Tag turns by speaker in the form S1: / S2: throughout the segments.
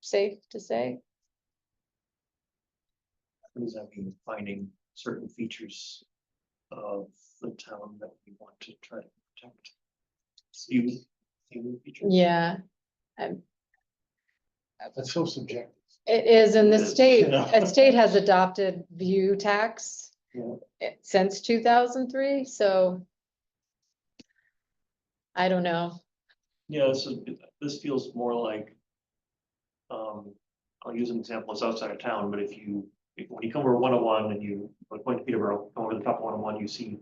S1: safe to say?
S2: What does that mean, finding certain features of the town that we want to try to protect? Even, even features?
S1: Yeah, Um,
S3: That's so subjective.
S1: it is, and the
S2: It is,
S1: state,
S2: you know.
S1: the state has adopted view tax
S2: Yeah.
S1: eh, since two thousand three, so I don't know.
S2: Yeah, this is, this feels more like. Um, I'll use an example, it's outside of town, but if you, if- when you come over one oh one and you, like point to Peterborough, come over the top of one oh one, you see.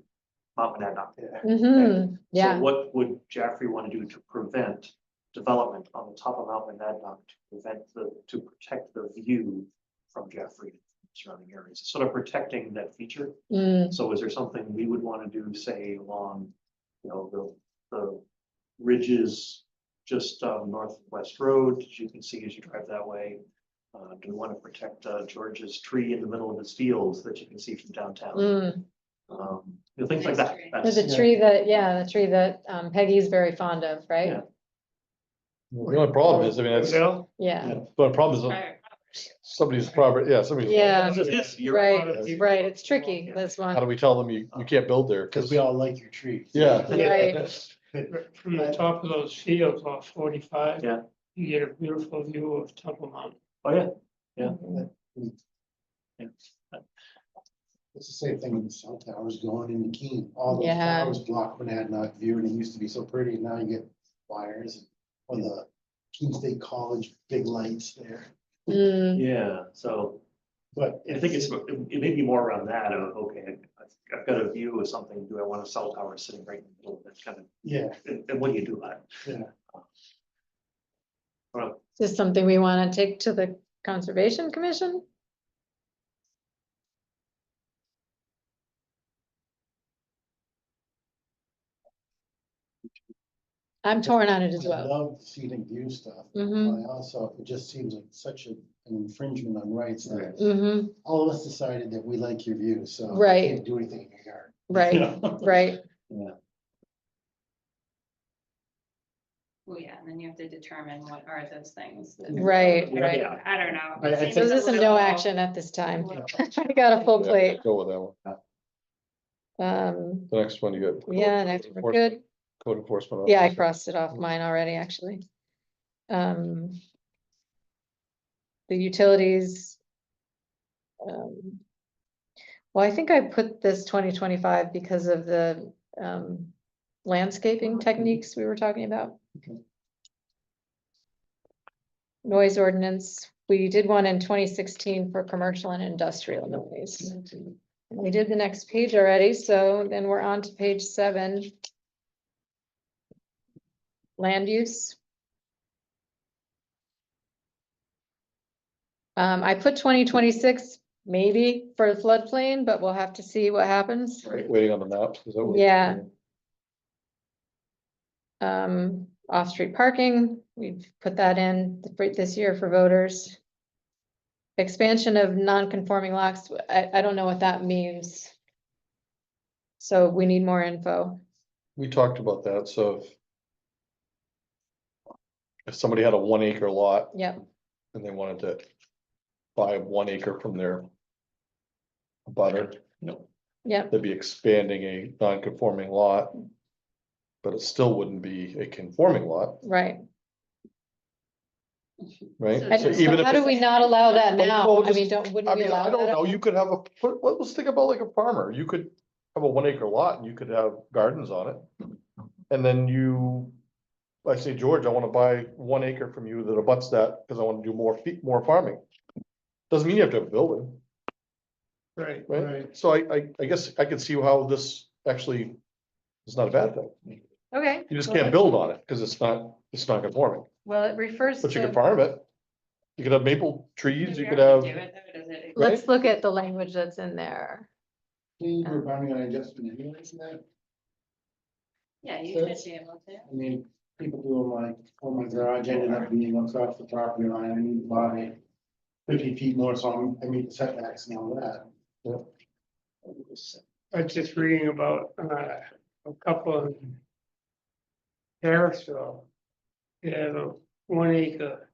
S2: Mount Monadnock there.
S1: Mhm,
S2: So
S1: yeah,
S2: What would Jaffrey want to do to prevent development on the top of Mount Monadnock to prevent the, to protect the view from Jaffrey and surrounding areas, It's sort of protecting that feature?
S1: mm,
S2: So is there something we would want to do, say, along, you know, the, the ridges just um, northwest road, as you can see as you drive that way? Uh, do we want to protect uh, George's tree in the middle of his fields that you can see from downtown?
S1: mm.
S2: Um, you know, things like
S4: Nice
S2: that.
S4: tree.
S1: There's
S2: That's-
S1: a tree that, yeah, the tree that um, Peggy is very fond of, right?
S2: Yeah.
S3: The only problem is, I mean, that's, the
S2: Well,
S1: Yeah,
S3: only problem is
S4: Prior property.
S3: somebody's property, yeah, somebody's.
S1: Yeah.
S2: that's this, you're
S1: right,
S2: part of the-
S1: right, it's tricky, this
S3: How do
S1: one,
S3: we tell them you, you can't build there?
S5: Because we all like your trees.
S3: Yeah.
S1: right,
S6: From the top of those fields off forty-five.
S2: Yeah.
S6: You get a beautiful view of Temple Mountain.
S2: Oh, yeah,
S5: It's the same thing with the cell towers going into Keene. All those
S1: Yeah.
S5: towers block Monadnock view and it used to be so pretty. and Now you get wires on the Keene State College, big lights there,
S1: mm.
S2: yeah, so
S5: but.
S2: I think it's, it may be more around that of, okay, I've- I've got a view of something, do I want a cell tower sitting right in the middle of that kind of
S5: Yeah,
S2: And and what do you do about it?
S5: Yeah.
S2: Well,
S1: Is this something we wanna take to the conservation commission? I'm torn on it
S5: I
S1: as well.
S5: love the scenic view stuff.
S1: hmm
S5: but I also, it just seems like such a- an infringement on rights that
S1: hmm
S5: all of us decided that we like your view, so. you
S1: Right.
S5: can't Do anything in your yard.
S1: right, right,
S4: Well, yeah, and then you have to determine what are those things. that-
S1: right,
S2: Yeah.
S1: right.
S4: I don't know.
S5: I- I
S4: It seems
S5: think-
S1: So
S4: a
S1: this is
S4: little-
S1: no action at this time.
S4: little-
S1: I got a full plate.
S3: Go with that one.
S1: Um,
S3: The next one you got.
S1: yeah, and I think we're good.
S3: Code enforcement.
S1: Yeah, I
S3: officer.
S1: crossed it off Mm-hmm.
S3: Mm.
S1: mine already, actually. Um. The utilities. um, Well, I think I put this twenty twenty-five because of the, um, landscaping techniques we were talking about. Noise ordinance, we did one in twenty sixteen for commercial and industrial noise. And We did the next page already, so then we're on to page seven land use. Um, I put twenty twenty-six maybe for the floodplain, but we'll have to see what happens.
S3: Wait- Waiting on the map. is that what-
S1: Yeah. Um, off-street parking, we've put that in th- this year for voters. Expansion of non-conforming lots, I, I don't know what that means. So we need more info.
S3: We talked about that, so. if- If somebody had a one acre lot
S1: Yep,
S3: and they wanted to buy one acre from their butter,
S1: yep,
S3: they'd be expanding a non-conforming lot. But it still wouldn't be a conforming lot,
S1: right.
S3: right?
S4: So
S1: I-
S3: So
S4: just-
S3: even
S1: So
S3: if
S1: how do
S3: it's-
S1: we not allow that
S3: Well,
S1: now?
S3: well,
S1: I mean,
S3: just-
S1: don't, wouldn't
S3: I
S1: we
S3: mean, I
S1: allow
S3: don't
S1: that?
S3: know, you could have a, what- what- let's think about like a farmer, you could have a one acre lot and you could have gardens on it. And then you, I say, George, I wanna buy one acre from you that abuts that, cause I wanna do more feet, more farming. Doesn't mean you have to have a building,
S6: Right,
S3: right? So I, I, I guess I could see how this actually is not a bad thing.
S1: Okay.
S3: You just
S1: well,
S3: can't build on it, cause it's not, it's not conforming,
S1: Well, it refers
S3: but you can
S1: to,
S3: farm it. You could have maple trees,
S4: Do
S3: you
S4: we
S3: could
S4: already
S3: have,
S4: do it, though? Does it-
S1: let's look at the language that's in there.
S5: We're bounding on adjustment anyways, isn't that?
S4: Yeah, you
S5: So
S4: should
S5: it's-
S4: be able to.
S5: I mean, people doing like, oh, my garage ended up being across the property line, I need to buy fifty feet more, so I'm, I meet the setbacks and all that.
S6: I was just reading about, uh, a couple in Harrisville. They had a one acre